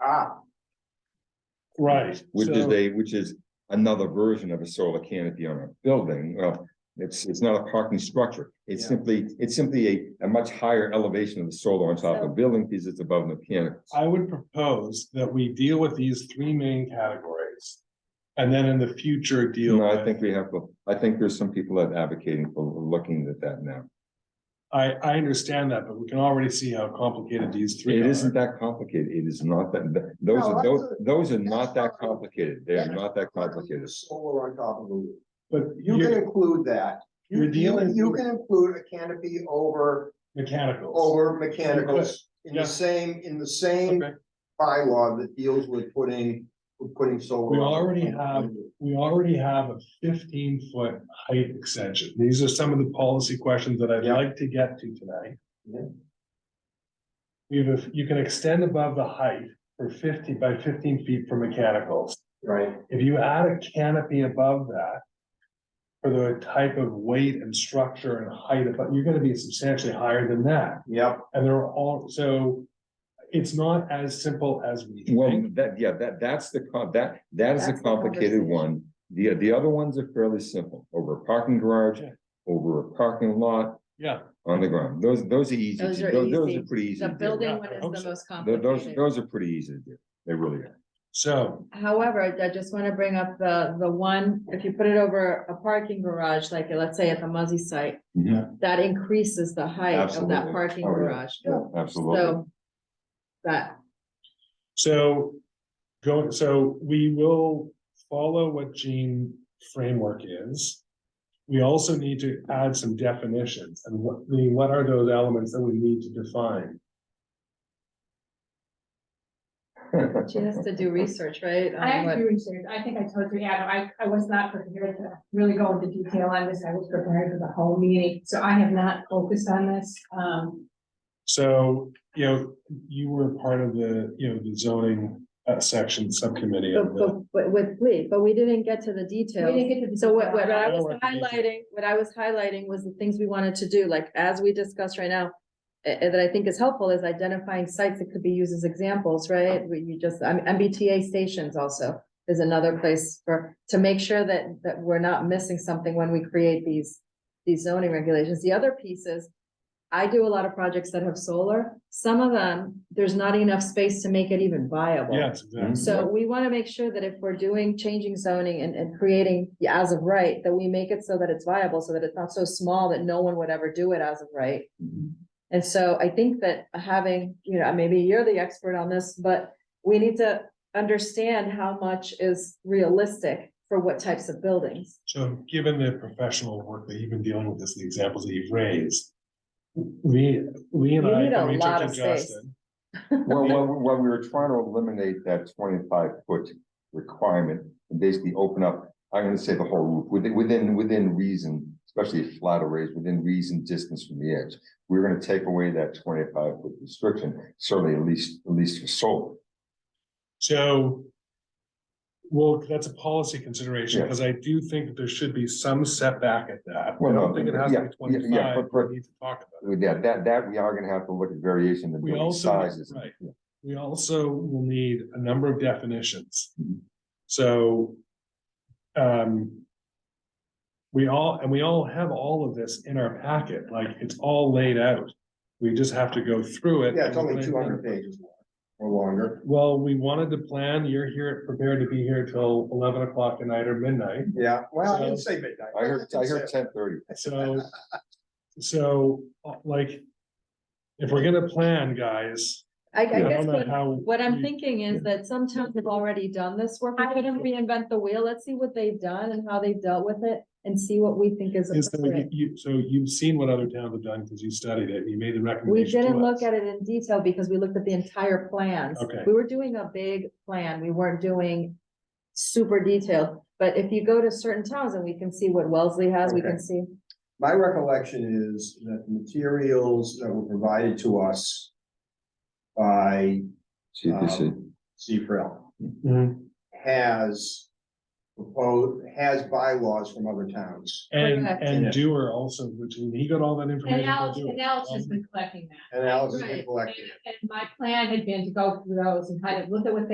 Ah. Right. Which is so- a, which is another version of a solar canopy on a building, well, it's, it's not a parking structure. It's Yeah. simply, it's simply a, a much higher elevation of the solar on top of the building, because it's above the canopy. I would propose that we deal with these three main categories. And then in the future, deal No, I with, think we have, to. I think there's some people that advocating for looking at that now. I, I understand that, but we can already see how complicated these three It are. isn't that complicated, it is not that, th- those No, are, that's those, those are that's not that not- complicated, they are Yeah. not that complicated. Solar on top of the roof. But You can you're include that. You- You're you- dealing- You can include a canopy over, mechanicals. over mechanicals in yeah. the same, in the same Okay, bylaw that deals with putting, with putting solar. We on- already have- we already have a fifteen foot height extension. These are some of the policy questions that I'd Yeah. like to get to tonight. Yeah. You have, a- you can extend above the height for fifty by fifteen feet for mechanicals. Right, If you add a canopy above that. For the type of weight and structure and height, but you're gonna be substantially higher than that, yep, and there are all, so. It's not as simple as we Well, think, that, yeah, that, that's the, com- that, that is a That's the complicated conversation. one. The, the other ones are fairly simple, over a parking garage, Yeah. over a parking lot, yeah, on the ground. Those, those are easy, Those to- are those, those easy. are pretty easy. The to do. building Yeah, one I is hope the so. most Tho- Oh, Those, complicated. those are pretty easy to do, they really are. so, However, I just want to bring up the, the one, if you put it over a parking garage, like let's say at the Muzzy site, that increases the height of that Absolutely. parking Oh, yeah. garage. Yeah, Absolutely. So that, so. Going, so we will follow what Gene framework is. We also need to add some definitions, and what, I mean, what are those elements that we need to define? she has to do research, right? on I have what- to do research. I think I told you, Adam, I, I was not prepared to really go into detail on this. I was prepared for the whole meeting, so I have not focused on this. Um, So, you know, you were part of the, you know, the zoning uh section subcommittee of But, the, but, but with Lee, but we didn't get to the we didn't details. get to. the So what, what detail. I I know was what you mean. highlighting, what I was highlighting was the things we wanted to do, like as we discussed right now. eh, eh, that I think is helpful is identifying sites that could be used as examples, right? Where you just, I mean, MBTA stations also is another place for, to make sure that, that we're not missing something when we create these, these zoning regulations. The other piece is I do a lot of projects that have solar. Some of them, there's not enough space to make it even viable. yes, exactly. So we want to make sure that if we're doing, changing zoning and, and creating the as of right, that we make it so that it's viable, so that it's not so small that no one would ever do it as of right. Mhm. And so I think that having, you know, maybe you're the expert on this, but we need to understand how much is realistic for what types of buildings. So given the professional work that you've been dealing with this, the examples that you've raised. We, we and You I, need a when we took lot to of space. Justin, Well, when, when we were trying to eliminate that twenty-five foot requirement, and basically open up, I'm gonna say the whole roof, within, within, within reason, especially if flat arrays, within reason distance from the edge. We We're gonna take away that twenty-five foot restriction, certainly at least, at least for solar. so. Well, that's a policy consideration, Yeah. because I do think that there should be some setback at that. I Well, don't no, think it has yeah, to yeah, be yeah, twenty-five, but- we but- need to talk about it. With that, that, that we are gonna have to look at variation in We building also- sizes. right. We also will need a number of definitions. Mhm. So. Um. We all, and we all have all of this in our packet, like it's all laid out. We just have to go through it. yeah, it's and only plan- two hundred pages long or longer, Well, we wanted to plan, you're here, prepared to be here till eleven o'clock tonight or midnight, yeah, well, I didn't say midnight. I heard, I heard ten thirty. so. So, uh, like. If we're gonna plan, guys, I, I I guess don't know what, how. what I'm we- thinking is that some towns have already done this work. We I- couldn't reinvent the wheel. Let's see what they've done and how they've dealt with it and see what we think is Is that appropriate. you, you- so you've seen what other towns have done because you studied it, and you made the We recommendation. to didn't look us. at it in detail because we looked at the entire plans. Okay. We were doing a big plan. We weren't doing super detailed. But if you go to certain towns and we can see what Wellesley has, we Okay. can see. My recollection is that the materials that were provided to us by CPC. Um, Zebra has proposed, has bylaws from other towns. And, Correct. and Yeah. Dewar also, which he got all that And information. from Alex, Dewar. and Alex has been collecting that. And Alex Um, has been Right. collecting it. And my plan had been to go through those and kind of look at what they